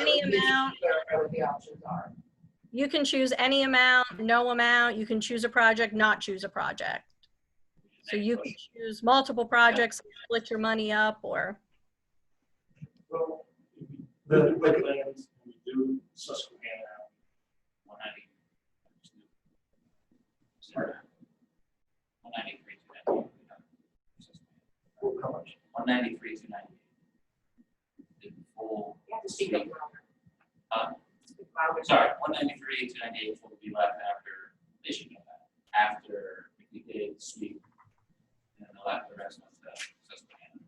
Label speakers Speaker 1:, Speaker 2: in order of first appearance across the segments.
Speaker 1: any amount.
Speaker 2: Whatever the options are.
Speaker 1: You can choose any amount, no amount. You can choose a project, not choose a project. So you can choose multiple projects, split your money up, or,
Speaker 3: Well, The wetlands, we do Susquehanna,
Speaker 4: One ninety. One ninety-three, two ninety.
Speaker 3: how much?
Speaker 4: One ninety-three, two ninety. The full,
Speaker 2: You have to speak up louder.
Speaker 4: uh,
Speaker 2: Speak louder.
Speaker 4: sorry, one ninety-three, two ninety-eight will be left after, they should know that, after we did sweep. And then they'll have the rest of the Susquehanna.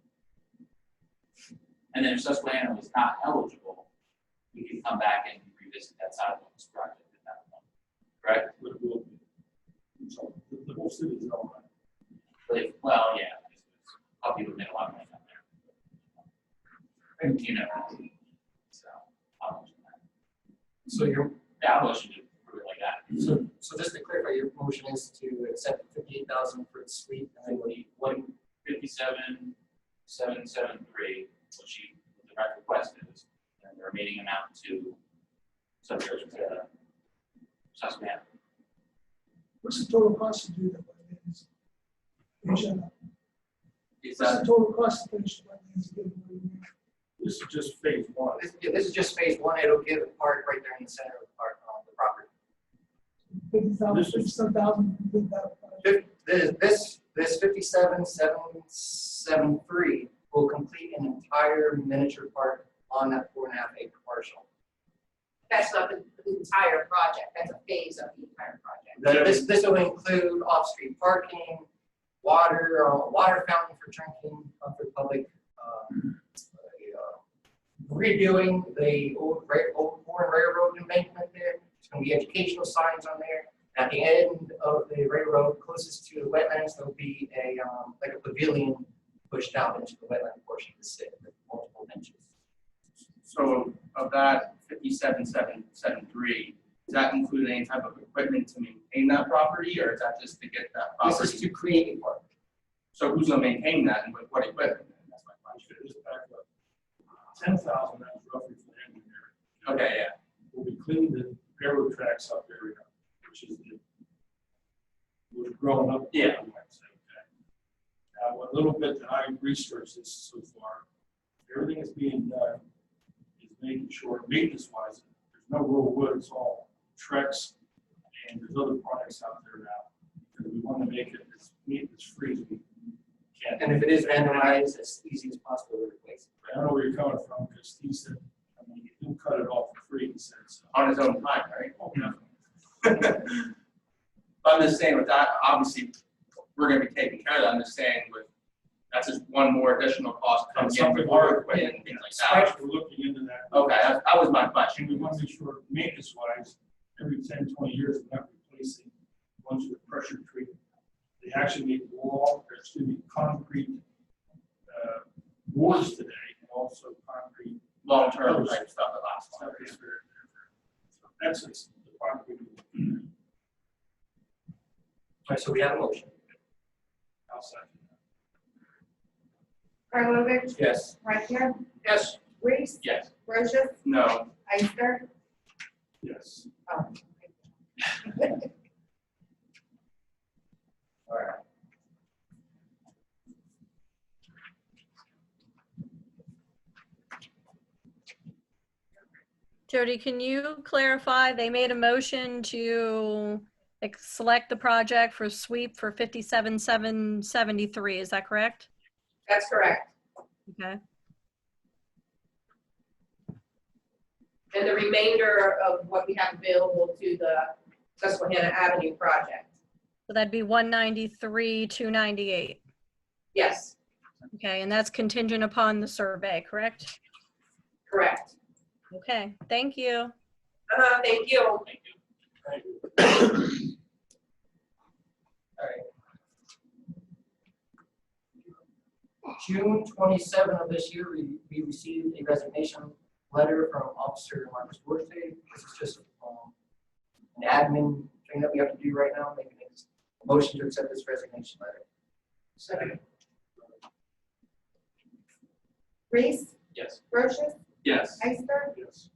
Speaker 4: And then if Susquehanna was not eligible, we could come back and revisit that sidewalks project at that point, correct?
Speaker 3: What it will be. So the, the whole city is all right.
Speaker 4: But if, well, yeah, I'll be looking at a lot of money down there. And you know. So, I'll motion that.
Speaker 5: So your,
Speaker 4: Yeah, I'll motion to approve it like that.
Speaker 5: so, so just to clarify, your motion is to accept fifty-eight thousand for the suite, and then what do you, what,
Speaker 4: One fifty-seven, seven, seven, three, what she, what the right request is, and the remaining amount to subject to the Susquehanna.
Speaker 6: What's the total cost to do that wetlands? What's
Speaker 4: Is
Speaker 6: the
Speaker 4: that,
Speaker 6: total cost to finish the wetlands? giveaway?
Speaker 3: This is just phase one.
Speaker 5: this, yeah, this is just phase one, it'll give a park right there in the center of the park, on the property.
Speaker 6: Fifty thousand,
Speaker 3: This is-
Speaker 6: fifty-seven thousand, complete that project.
Speaker 5: Fif- This, this, this fifty-seven, seven, seven, three will complete an entire miniature park on that four and a half acre parcel.
Speaker 2: That's not the, the entire project, that's a phase of the entire project.
Speaker 5: That- This, this will include off-street parking, water, uh, water fountain for drinking, uh, for public, um, uh, redoing the old, ra- old Warren railroad embankment there, there's gonna be educational signs on there. At the end of the railroad closest to the wetlands, there'll be a, um, like a pavilion pushed out into the wetland portion of the city, with multiple benches.
Speaker 7: So of that fifty-seven, seven, seven, three, does that include any type of equipment to maintain that property, or is that just to get that
Speaker 5: This is
Speaker 7: property?
Speaker 5: to create a park.
Speaker 7: So who's gonna maintain that and with what equipment? That's my question.
Speaker 3: Ten thousand, that's roughly for the engineering.
Speaker 7: Okay, yeah.
Speaker 3: Will be cleaning the railroad tracks up area, which is the, was grown up.
Speaker 7: Yeah.
Speaker 3: I might say, okay. Now, a little bit that I researched this so far, everything that's being done is making sure maintenance wise, there's no real wood, it's all Trex and there's other products out there now. Because we want to make it as maintenance free as we can.
Speaker 5: And if it is randomized, as easy as possible to replace.
Speaker 3: I don't know where you're coming from, because Steve said, I mean, you can cut it off for free, he said, so.
Speaker 7: on his own time, right? But I'm just saying with that, obviously, we're gonna be taking care of that, I'm just saying with, that's just one more additional cost
Speaker 3: And
Speaker 7: coming in
Speaker 3: something
Speaker 7: with
Speaker 3: more
Speaker 7: more
Speaker 3: equipment,
Speaker 7: equipment and things like that.
Speaker 3: Scratch, we're looking into that.
Speaker 7: Okay, that, that was my
Speaker 3: And
Speaker 7: question.
Speaker 3: we want to make sure maintenance wise, every 10, 20 years, we're not replacing ones with pressure treatment. They actually make wall, there's gonna be concrete, uh, boards today, and also concrete.
Speaker 7: Long-term type stuff that lasts
Speaker 3: stuff
Speaker 7: longer.
Speaker 3: that's very- So That's it's the part we do
Speaker 5: All right, so we have a motion.
Speaker 3: outside.
Speaker 8: Karlovic,
Speaker 7: Yes.
Speaker 8: Rechner,
Speaker 5: Yes.
Speaker 8: Reese,
Speaker 4: yes,
Speaker 8: Brochus,
Speaker 7: No.
Speaker 8: Ister,
Speaker 3: Yes.
Speaker 2: Um,
Speaker 5: All right.
Speaker 1: Jody, can you clarify? They made a motion to like, select the project for sweep for 57,773, is that correct?
Speaker 2: That's correct.
Speaker 1: Okay.
Speaker 2: And the remainder of what we have available to the Susquehanna Avenue project.
Speaker 1: So that'd be 193, 298.
Speaker 2: Yes,
Speaker 1: Okay, and that's contingent upon the survey, correct?
Speaker 2: correct.
Speaker 1: Okay, thank you.
Speaker 2: Uh, thank you.
Speaker 4: thank you.
Speaker 3: Thank you.
Speaker 5: June twenty-seven of this year, we, we received a resignation letter from Officer Marcus Dorsey. This is just, um, an admin thing that we have to do right now, making a motion to accept this resignation letter. Second.
Speaker 8: Reese,
Speaker 4: Yes.
Speaker 8: Brochus,
Speaker 7: Yes.
Speaker 8: Ister,
Speaker 3: Yes.